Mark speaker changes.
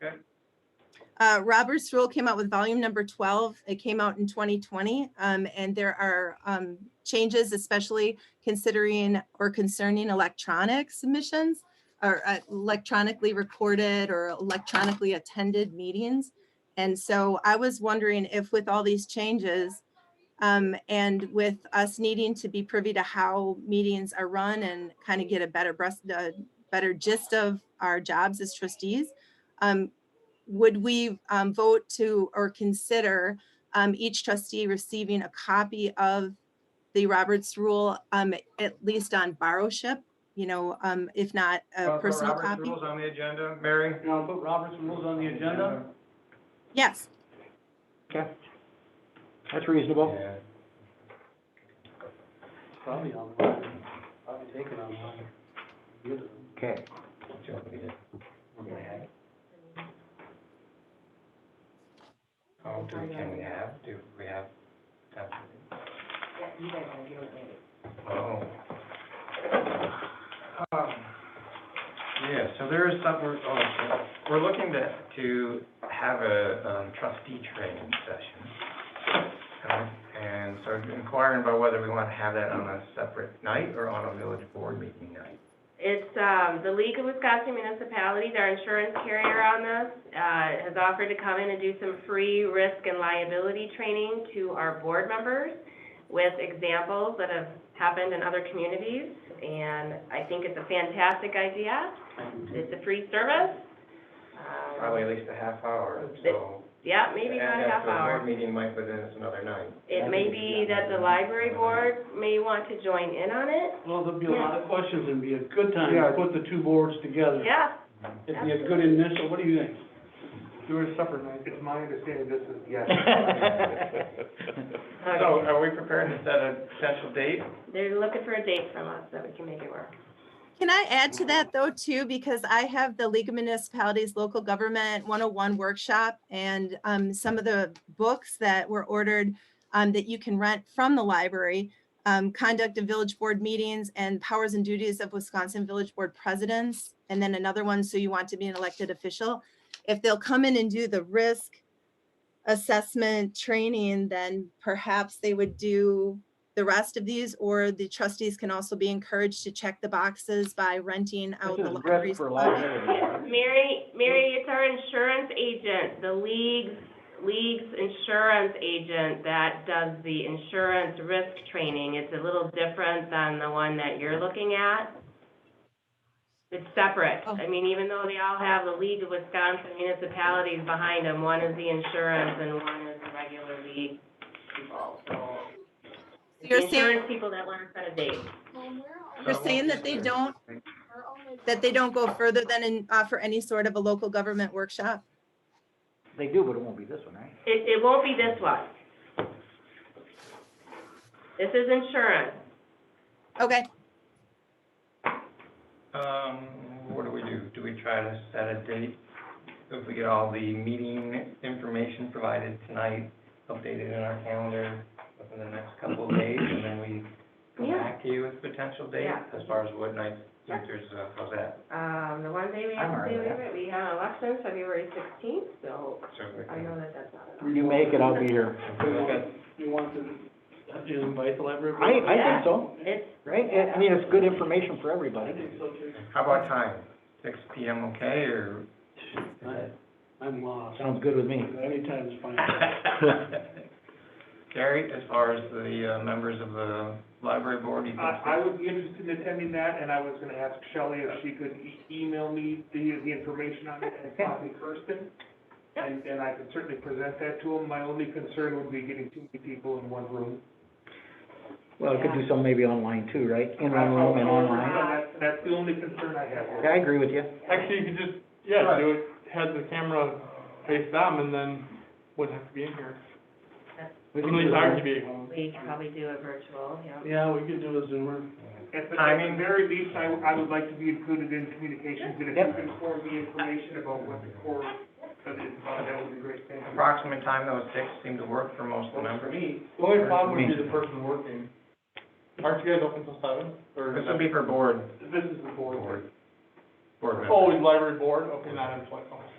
Speaker 1: Okay.
Speaker 2: Uh, Robert's Rule came out with volume number 12. It came out in 2020. um, And there are um, changes, especially considering or concerning electronic submissions or uh, electronically recorded or electronically attended meetings. And so I was wondering if with all these changes um, and with us needing to be privy to how meetings are run and kind of get a better breast, uh, better gist of our jobs as trustees, um, would we um, vote to or consider um, each trustee receiving a copy of the Roberts Rule, um, at least on borrowship? You know, um, if not
Speaker 1: Uh,
Speaker 2: a
Speaker 1: put
Speaker 2: personal
Speaker 1: Robert's
Speaker 2: copy?
Speaker 1: Rules on the agenda, Mary?
Speaker 3: You know, put Robert's rules on the agenda.
Speaker 2: Yes.
Speaker 3: Okay. That's reasonable.
Speaker 1: Yeah.
Speaker 3: Probably online. Probably taken online.
Speaker 1: Okay. Oh, do we, can we have, do we have? Oh. Um, Yeah, so there is some, we're, oh, okay. we're looking to, to have a um, trustee training session. Um, And so inquiring about whether we want to have that on a separate night or on a village board meeting night.
Speaker 4: It's, um, the League of Wisconsin Municipalities, our insurance carrier on this, uh, has offered to come in and do some free risk and liability training to our board members with examples that have happened in other communities, and I think it's a fantastic idea. It's a free service. Um,
Speaker 1: Probably at least a half hour,
Speaker 4: But-
Speaker 1: so.
Speaker 4: Yeah, maybe about a half
Speaker 1: And after a
Speaker 4: hour.
Speaker 1: board meeting might, but then it's another night.
Speaker 4: It may be that the library board may want to join in on it.
Speaker 3: Well, there'll be a lot of questions and be a good time to
Speaker 1: Yeah.
Speaker 3: put the two boards together.
Speaker 4: Yeah,
Speaker 3: It'd be a good initial, what do you think?
Speaker 5: Do a supper night, it's my understanding this is, yes.
Speaker 1: So
Speaker 4: okay.
Speaker 1: are we prepared to set a potential date?
Speaker 4: They're looking for a date from us that we can make it work.
Speaker 2: Can I add to that though too, because I have the League of Municipalities Local Government 101 workshop and um, some of the books that were ordered um, that you can rent from the library, um, Conduct of Village Board Meetings and Powers and Duties of Wisconsin Village Board Presidents, and then another one, So You Want to Be an Elected Official. If they'll come in and do the risk assessment training, then perhaps they would do the rest of these, or the trustees can also be encouraged to check the boxes by renting out
Speaker 3: This
Speaker 2: the
Speaker 3: is risk
Speaker 2: library's.
Speaker 3: for
Speaker 2: closet.
Speaker 3: liability.
Speaker 4: Mary, Mary, it's our insurance agent, the league's, league's insurance agent that does the insurance risk training. It's a little different than the one that you're looking at. It's separate.
Speaker 2: Oh.
Speaker 4: I mean, even though they all have the League of Wisconsin Municipalities behind them, one is the insurance and one is the regular league people, so.
Speaker 2: So You're
Speaker 4: The
Speaker 2: saying,
Speaker 4: Insurance people that want to set a date.
Speaker 2: you're saying that they don't, that they don't go further than and offer any sort of a local government workshop?
Speaker 6: They do, but it won't be this one, right?
Speaker 4: It, it won't be this one. This is insurance.
Speaker 2: Okay,
Speaker 1: Um, what do we do? Do we try to set a date? If we get all the meeting information provided tonight, updated in our calendar within the next couple of days, and then we come
Speaker 4: Yeah.
Speaker 1: back to you with a potential date
Speaker 4: Yeah.
Speaker 1: as far as what night, if there's, uh, how's that?
Speaker 4: Um, the one day we have
Speaker 6: I'm
Speaker 4: to
Speaker 6: alright
Speaker 4: do
Speaker 6: with
Speaker 4: it, we have elections, February sixteenth, so
Speaker 1: So we
Speaker 4: I know
Speaker 1: can-
Speaker 4: that that's not enough.
Speaker 6: You make it, I'll be here.
Speaker 1: we look at-
Speaker 3: You want to, have you invite the library?
Speaker 6: I, I think so,
Speaker 4: It's,
Speaker 6: right? I- I mean, it's good information for everybody.
Speaker 3: I think so too.
Speaker 1: How about time? Six P M, okay, or?
Speaker 3: I- I'm lost.
Speaker 6: Sounds good with me.
Speaker 3: Anytime's fine.
Speaker 1: Gary, as far as the, uh, members of the library board, you think?
Speaker 5: Uh, I, I would be interested in attending that, and I was gonna ask Shelley if she could e- email me the, the information on it and copy Kirsten. And, and I could certainly present that to them. My only concern would be getting too many people in one room.
Speaker 6: Well, I could do some maybe online too, right? In one room and
Speaker 5: However,
Speaker 6: online.
Speaker 5: that- That's the only concern I have.
Speaker 6: Okay, I agree with you.
Speaker 7: Actually, you could just, yeah, do it, had the camera face them and then wouldn't have to be in here.
Speaker 6: We
Speaker 7: At
Speaker 6: can do
Speaker 7: least I
Speaker 6: that.
Speaker 7: could be at home.
Speaker 4: we can probably do a virtual, yeah.
Speaker 3: Yeah, we could do a Zoomer.
Speaker 5: At the, at
Speaker 1: Timing.
Speaker 5: the very least, I, I would like to be included in communications, and if you
Speaker 6: Yep.
Speaker 5: can forward me information about what the core of it is about, that would be great, thank you.
Speaker 1: Approximate time, though, six seemed to work for most of the members.
Speaker 7: The only problem would be the person working. Aren't you guys open till seven? Or
Speaker 1: This would be for board,
Speaker 5: This is the board.
Speaker 1: board, board
Speaker 7: Oh,
Speaker 1: members.
Speaker 7: library board, okay, not employee, okay.